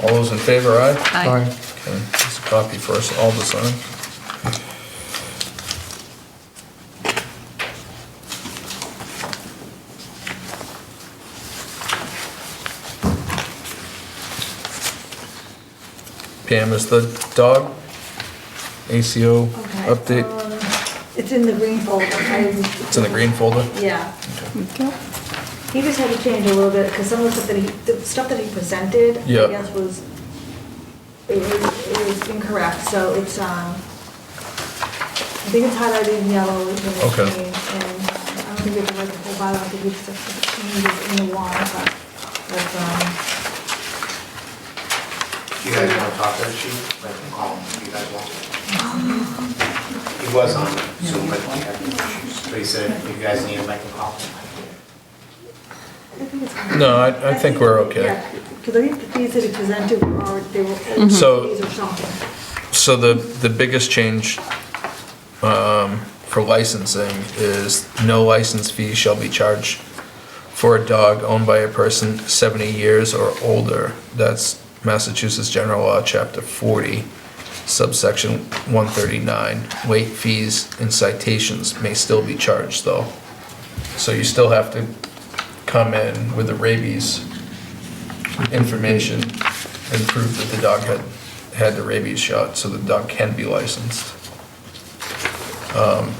All those in favor, aye? Aye. Okay, just a copy for us all to sign. Pam, is the dog ACO Okay, update, um, It's in the green folder. it's in the green folder? Yeah. Okay. He just had to change a little bit, because some of the stuff that he, the stuff that he presented, I Yeah. guess was, it was, it was incorrect, so it's, um, I think it's highlighted in yellow, which is Okay. change, and I don't think it's like the whole bylaw, I think it's just the changes in the warrant, but, but, um, You guys want to talk to the chief? Let him call him if you guys want. He was on Zoom, but he had issues. But he said, if you guys need him, I can call him. I think it's fine. No, I- I think we're okay. Yeah, because I think the fees that he presented were, already- they were old fees So- or something. So the, the biggest change um, for licensing is no license fee shall be charged for a dog owned by a person 70 years or older. That's Massachusetts General Law, Chapter 40, subsection 139. Late fees and citations may still be charged, though. So you still have to come in with the rabies information and prove that the dog had, had the rabies shot, so the dog can be licensed. Um,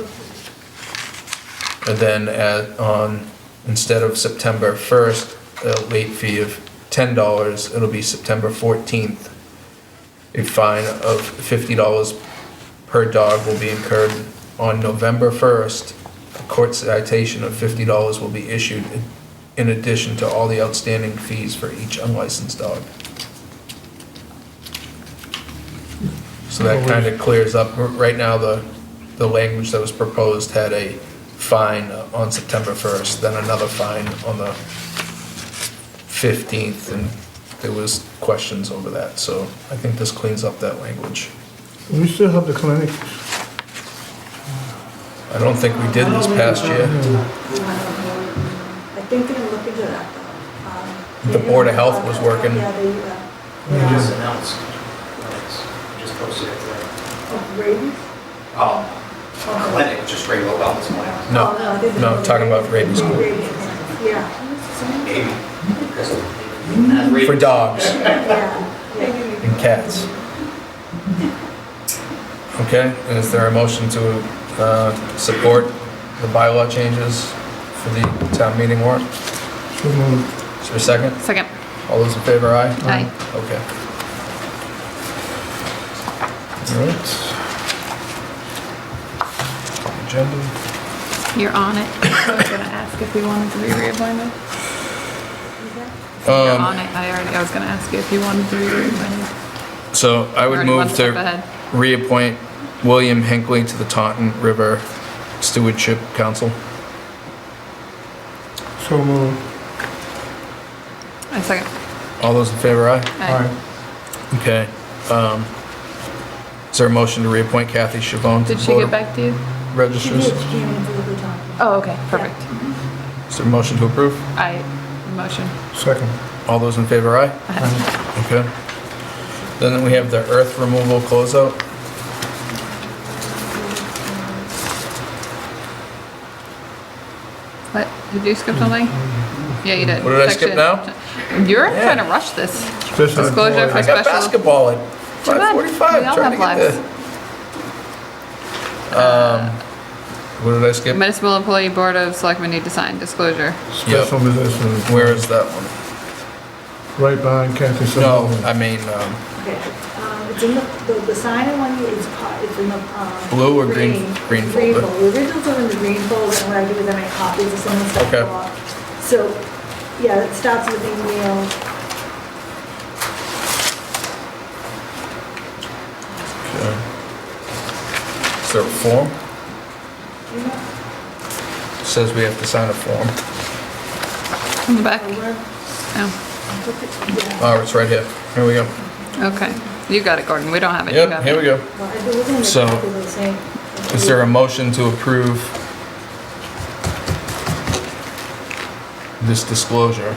And then at, on, instead of September 1st, a late fee of $10, it'll be September 14th. A fine of $50 per dog will be incurred on November 1st. A court citation of $50 will be issued in addition to all the outstanding fees for each unlicensed dog. So that kind of clears up, R- right now, the, the language that was proposed had a fine on September 1st, then another fine on the 15th, and there was questions over that, so I think this cleans up that language. We still have the clinic. I don't think we did this past year. I think they're gonna look into that, though. Um, The Board of Health was working. Yeah, they, uh, He just yeah. announced, he just posted it today. Oh, rabies? Um, clinic, just regular wellness plan. No, Oh, I think no, it's- talking about rabies. Yeah. Maybe. Because that's For rabies. dogs Yeah, yeah. and cats. Okay, is there a motion to uh, support the bylaw changes for the town meeting warrant? So moved. Is there a second? Second. All those in favor, aye? Aye. Okay. All right. Agenda, You're on it. I was gonna ask if we wanted to be reappointed. You're Um, on it. I already, I was gonna ask you if you wanted to be reappointed. so I would Already one move step to ahead. reappoint William Hinckley to the Taunton River Stewardship Council. So moved. I second. All those in favor, aye? Aye. Okay. Um, Is there a motion to reappoint Kathy Chavon to Did the she Board get of back to you? She did, Registers? she came in for the good time. Oh, okay, perfect. Is there a motion to approve? I, motion. Second. All those in favor, aye? Okay. Then we have the earth removal closeout. What, did you skip something? Yeah, you did. What did I skip Section- now? You're Yeah. trying to rush this. Special Disclosure employee. for I got special- basketball at Too bad. We 5:45, all trying to have get lives. the... Um, What did I skip? Municipal Employee Board of Selectmen need to sign disclosure. Special position. Where is that one? Right behind Kathy No, Sullivan. I mean, um, Okay, um, it's in the, the, the sign in one is, po- it's in the, um. Blue or green- green It's folder? The originals are in the green folder, and what I do is I make copies of some of the stuff. Okay. off. So, yeah, it starts with email. okay. is there a form? you know, Says we have to sign a form. In the back? or where- Oh, look at- yeah. Oh, it's right here. Here we go. okay. You got it, Gordon. We don't have it. You Yep, got here it. we go. Well, I- there wasn't any So, copies of the same. Is there a motion to approve this disclosure?